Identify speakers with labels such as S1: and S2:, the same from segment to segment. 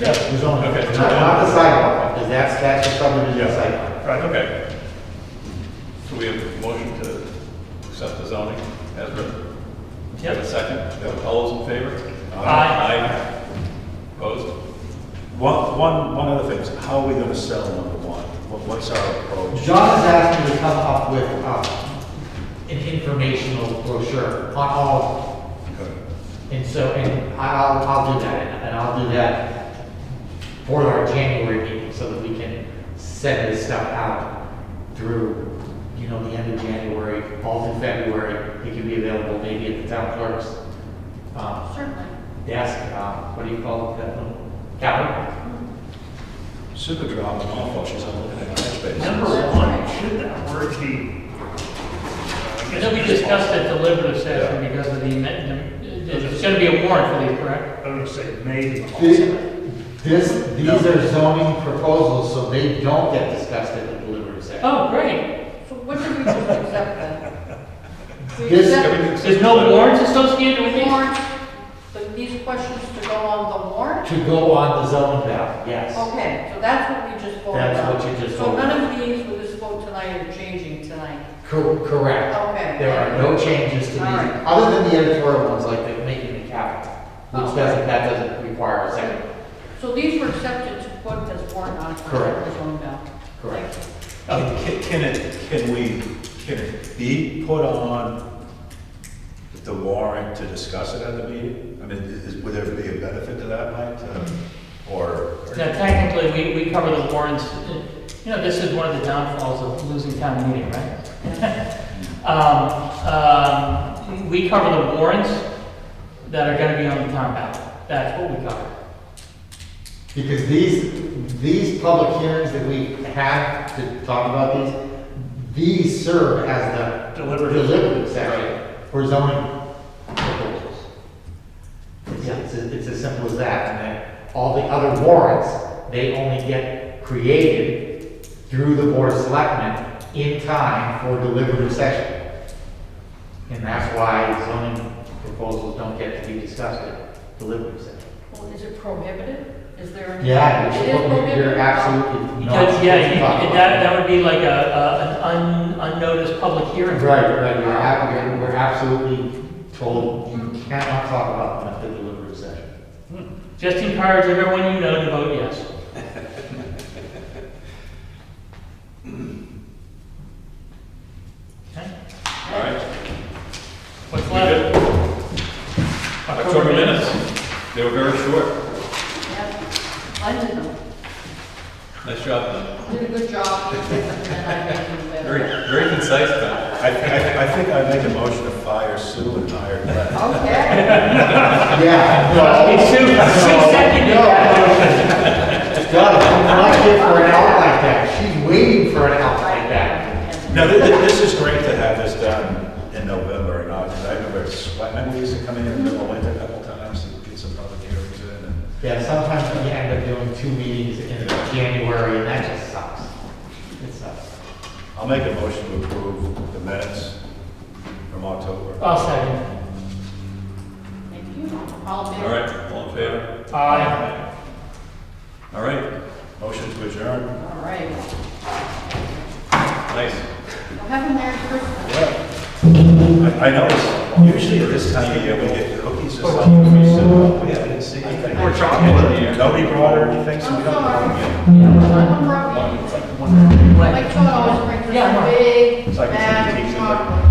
S1: Yes, the zoning.
S2: Okay.
S1: Not-
S2: No,
S1: not-
S3: Not the sidewalk, because that's, that's the subdivision
S1: Yeah.
S3: site.
S1: Right,
S2: Okay. So we have a motion to accept the zoning as written? Have a second? All those in favor?
S4: Aye.
S2: Aye. Opposed?
S5: One, one, one other thing, is how are we gonna sell number one? What- What's our approach?
S3: John is asking to come up with, uh, an informational brochure on all of them. And so, and I'll, I'll do that, and I'll do that for our January meeting, so that we can send this stuff out through, you know, the end of January, all through February, it can be available maybe at the town clerk's, um,
S6: Certainly.
S3: desk, uh, what do you call it, that little counter?
S5: Super drop, them off while she's out looking at catch
S4: Number
S5: bases.
S4: one, should that word be?
S7: Uh,
S4: I know we discussed
S7: discussed a deliberative session because of the, it's gonna be a warrant for these, correct?
S4: I'm gonna say maybe.
S3: This, these are zoning proposals, so they don't get discussed at the deliberative session.
S7: Oh, great.
S6: So what did we just accept then? We
S3: This-
S6: accept
S2: Everything's-
S7: There's no warrants associated with
S6: the
S7: these?
S6: warrant, but these questions to go on the warrant?
S3: To go on the zoning map, yes.
S6: Okay, so that's what we just voted on.
S3: That's what you just
S6: So
S3: voted
S6: none of these with this vote tonight are changing tonight.
S3: Cor- Correct.
S6: Okay.
S3: There are no changes to these,
S6: All right.
S3: other than the editorial ones, like the making the capital, which doesn't, that doesn't require a second.
S6: So these were accepted to put as warrant articles.
S3: Correct.
S6: as own ballot.
S3: Correct.
S5: Uh, Can can it, can we, can it be put on the warrant to discuss it at the meeting? I mean, is, would there be a benefit to that, Mike, to- or? or-
S7: Now technically, we, we cover the warrants, you know, this is one of the downfalls of losing town meeting, right? Um, um, we cover the warrants that are gonna be on the town ballot. That's what we cover.
S3: Because these, these public hearings that we have to talk about these, these serve as the
S4: Deliberative.
S3: deliberative section for zoning proposals. It's, it's, it's as simple as that, and then all the other warrants, they only get created through the board of selectmen in time for deliberative session. And that's why zoning proposals don't get to be discussed at deliberative session.
S6: Well, is it prohibited? Is there? any-
S3: Yeah,
S6: It is
S3: you're,
S6: prohibited?
S3: you're absolutely not.
S7: Because, yeah, you-
S3: supposed to talk
S7: that,
S3: about
S7: that would be like a, a- an un- unnoticed public
S3: it.
S7: hearing.
S3: Right, right, you're ab- you're- we're absolutely told you cannot talk about them at the deliberative session.
S7: Just encourage everyone you know to vote yes. Okay.
S2: All right.
S7: What's
S2: We good?
S7: left?
S2: October minutes, they were very short.
S6: Yeah. I did them.
S2: Nice job, man.
S6: Did a good job. And I made them
S2: Very,
S6: better.
S2: very concise, man.
S5: I, I, I think I make a motion to fire Sue and hire Glenn.
S6: Okay.
S3: Yeah, no,
S7: It's Sue, Sue seconded that motion.
S3: God, I'm not here for an out like that, she's waiting for an out like that.
S5: Now, thi- thi- this is great to have this done in November and August. I remember sweat, I used to come in in the winter a couple times and get some public hearings in. and-
S3: Yeah, sometimes we end up doing two meetings in January, and that just sucks. It sucks.
S5: I'll make a motion to approve the minutes from October.
S7: I'll second.
S6: Thank you. All in
S2: All
S6: favor?
S2: right, all in favor?
S7: Aye.
S2: All right,
S5: Motion to adjourn.
S6: All right.
S2: nice.
S6: Well, have a Merry Christmas.
S5: I I know, usually at this time of year, we get cookies or something. We sit up, We haven't seen anything.
S4: Or chocolate.
S5: Nobody brought her anything, so we
S6: I'm
S5: don't.
S6: sorry. I'm from,
S7: What?
S6: like, Todd always brings
S7: Yeah, I know.
S6: us a big
S5: It's like it's in
S6: bag
S5: the
S6: of
S5: teacher's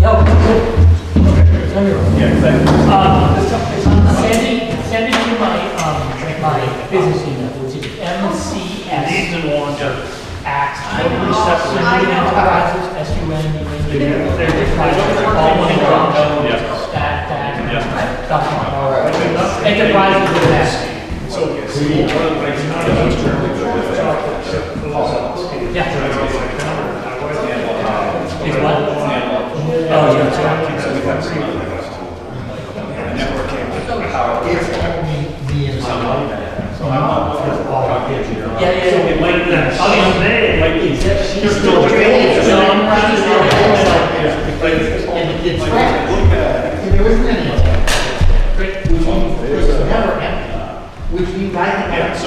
S6: chocolate.
S7: Yo. Turn your-
S5: Yeah, exactly.
S7: Uh, Send it, send it to my, um, my business email, which is
S4: Needs
S7: mcs
S4: and wants are-
S7: at
S6: know, I know.
S7: sunnydentalpractices.com.
S4: They're- they're- they're-
S7: All one drop.
S2: Yeah.
S7: That, that,
S2: Yeah.
S7: dot com.
S3: All right.
S7: Enterprises with that. Yeah. Is what? Oh, yeah.
S3: It's only me and my mom, so I'm not for all the kids, you know.
S7: Yeah, yeah, yeah.
S4: It might be someday, it might be.
S7: She's
S4: still training.
S7: So I'm proud of her.
S3: And the kids, and there isn't any,
S7: Great.
S3: which was never empty, which means I can have.